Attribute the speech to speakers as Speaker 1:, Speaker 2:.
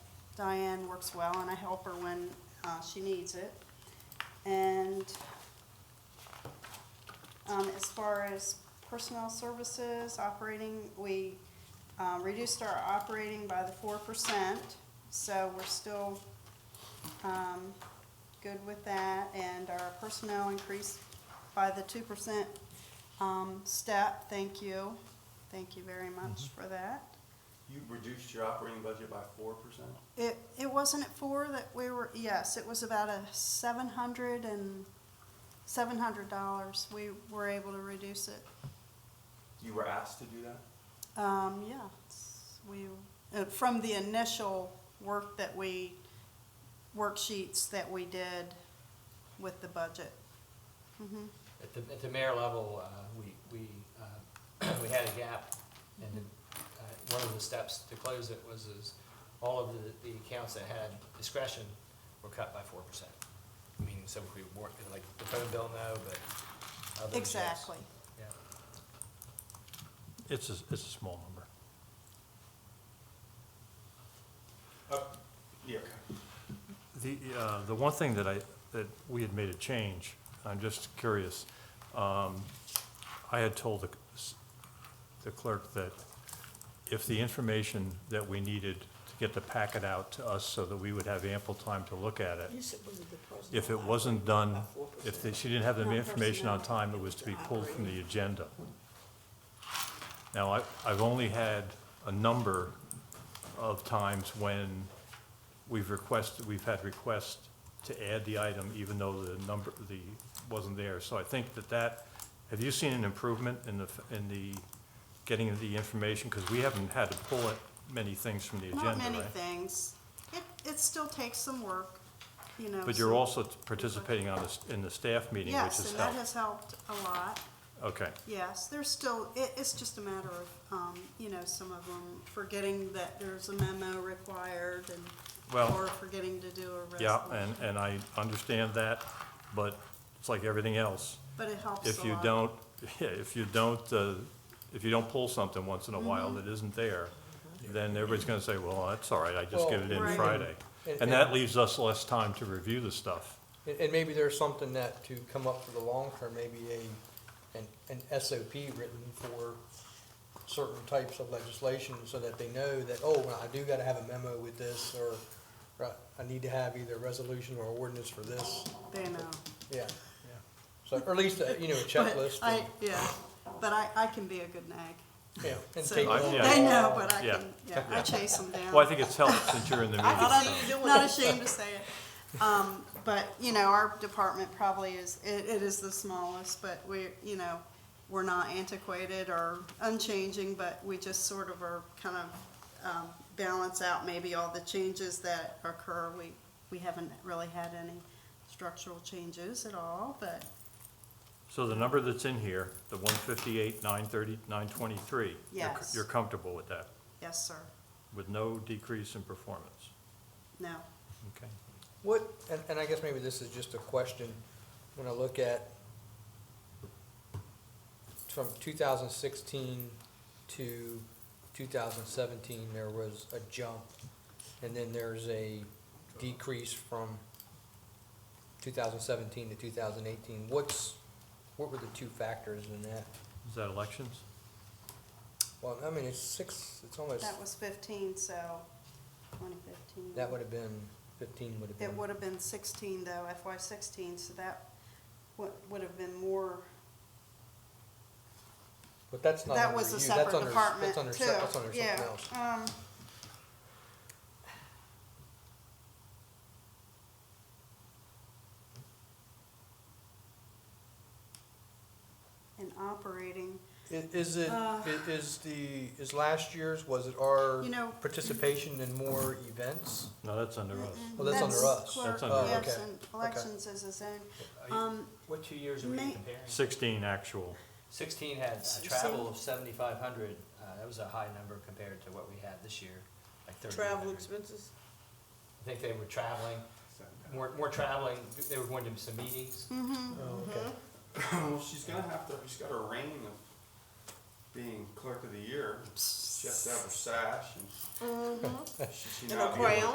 Speaker 1: Diane works well, and I help her when uh, she needs it. And um, as far as personnel services, operating, we um, reduced our operating by the four percent, so we're still um, good with that, and our personnel increased by the two percent um, step. Thank you, thank you very much for that.
Speaker 2: You reduced your operating budget by four percent?
Speaker 1: It, it wasn't at four that we were, yes, it was about a seven hundred and, seven hundred dollars. We were able to reduce it.
Speaker 2: You were asked to do that?
Speaker 1: Um, yeah, it's- we, uh, from the initial work that we, worksheets that we did with the budget. Mhm.
Speaker 3: At the, at the mayor level, uh, we, we, uh, we had a gap, and uh, one of the steps to close it was, is all of the, the accounts that had discretion were cut by four percent. I mean, so if we weren't, like, the phone bill, no, but others, yes.
Speaker 1: Exactly.
Speaker 3: Yeah,
Speaker 4: It's a, it's a small number.
Speaker 2: Uh, yeah, okay.
Speaker 4: The, uh, the one thing that I, that we had made a change, I'm just curious, um, I had told the c- the clerk that if the information that we needed to get the packet out to us so that we would have ample time to look at it, if it wasn't done, if they- she didn't have the
Speaker 5: Not
Speaker 4: information on
Speaker 5: personnel,
Speaker 4: time, it was to be pulled from the agenda. Now, I, I've only had a number of times when we've requested, we've had requests to add the item even though the number, the, wasn't there. So I think that that, have you seen an improvement in the, in the getting of the information? Because we haven't had to pull it, many things from the
Speaker 1: Not
Speaker 4: agenda,
Speaker 1: many
Speaker 4: right?
Speaker 1: things. It, it still takes some work, you know.
Speaker 4: But you're
Speaker 1: so-
Speaker 4: also participating on this, in the staff meeting, which
Speaker 1: Yes,
Speaker 4: has
Speaker 1: and that
Speaker 4: helped.
Speaker 1: has helped a lot.
Speaker 4: Okay,
Speaker 1: Yes, there's still, it, it's just a matter of, um, you know, some of them forgetting that there's a memo required and,
Speaker 4: Well-
Speaker 1: or forgetting to do a resolution.
Speaker 4: yeah, and, and I understand that, but it's like everything else.
Speaker 1: But it helps a lot.
Speaker 4: If you don't, yeah, if you don't, uh, if you don't pull something once in a while
Speaker 1: Mm-hmm.
Speaker 4: that isn't there, then everybody's gonna say, well, that's all right, I just get it
Speaker 1: Well,
Speaker 4: in
Speaker 1: Right.
Speaker 4: Friday.
Speaker 6: And-
Speaker 4: And that
Speaker 6: and-
Speaker 4: leaves us less time to review the stuff.
Speaker 6: And, and maybe there's something that to come up for the long term, maybe a, an, an SOP written for certain types of legislation so that they know that, oh, well, I do gotta have a memo with this or, or I need to have either a resolution or ordinance for this.
Speaker 1: They know.
Speaker 6: Yeah, yeah. So, or at least, uh, you know, a
Speaker 1: But
Speaker 6: checklist.
Speaker 1: I,
Speaker 6: and-
Speaker 1: yeah, but I, I can be a good nag.
Speaker 6: Yeah, and
Speaker 1: So
Speaker 6: take it
Speaker 4: I-
Speaker 6: on.
Speaker 4: yeah.
Speaker 1: They know, but I
Speaker 4: Yeah.
Speaker 1: can, yeah, I chase them down.
Speaker 4: Well, I think it's helped since you're in the meeting.
Speaker 1: Not a- Not ashamed to say it. Um, but, you know, our department probably is, it, it is the smallest, but we, you know, we're not antiquated or unchanging, but we just sort of are kind of, um, balance out maybe all the changes that occur. We, we haven't really had any structural changes at all, but,
Speaker 4: So the number that's in here, the one fifty-eight, nine thirty, nine twenty-three.
Speaker 1: Yes.
Speaker 4: You're comfortable with that,
Speaker 1: yes, sir,
Speaker 4: with no decrease in performance,
Speaker 1: no.
Speaker 4: okay?
Speaker 6: What, and, and I guess maybe this is just a question, when I look at from two thousand sixteen to two thousand seventeen, there was a jump, and then there's a decrease from two thousand seventeen to two thousand eighteen. What's, what were the two factors in that?
Speaker 4: Is that elections?
Speaker 6: Well, I mean, it's six, it's almost,
Speaker 1: That was fifteen, so twenty fifteen.
Speaker 6: that would have been, fifteen would have been.
Speaker 1: It would have been sixteen though, FY sixteen, so that would, would have been more,
Speaker 6: But that's not
Speaker 1: that
Speaker 6: under
Speaker 1: was
Speaker 6: you,
Speaker 1: a
Speaker 6: that's
Speaker 1: separate
Speaker 6: under,
Speaker 1: department
Speaker 6: that's
Speaker 1: too.
Speaker 6: under, se- that's under something else.
Speaker 1: Yeah, um, In operating,
Speaker 6: I- Is it,
Speaker 1: Uh.
Speaker 6: i- is the, is last year's, was it our
Speaker 1: you know.
Speaker 6: participation in more events?
Speaker 4: No, that's under us.
Speaker 1: mm-mm,
Speaker 6: Oh, that's under us.
Speaker 1: clerk,
Speaker 4: That's under
Speaker 6: us.
Speaker 1: yes,
Speaker 6: Okay,
Speaker 1: and Elections is its own,
Speaker 3: Are you-
Speaker 1: um,
Speaker 3: What two years are we
Speaker 1: May-
Speaker 3: comparing?
Speaker 4: Sixteen actual,
Speaker 3: Sixteen had uh, travel of seventy-five hundred, uh, that was a high number compared to what we had this year, like thirty-nine hundred.
Speaker 5: Travel expenses?
Speaker 3: I think they were traveling, more, more traveling, they were going to some meetings,
Speaker 1: mhm,
Speaker 6: Oh, okay.
Speaker 2: Well, she's gonna have to, she's got her reign of being clerk of the year. She has to have her sash and she should
Speaker 5: And a
Speaker 2: not be able to
Speaker 5: crown?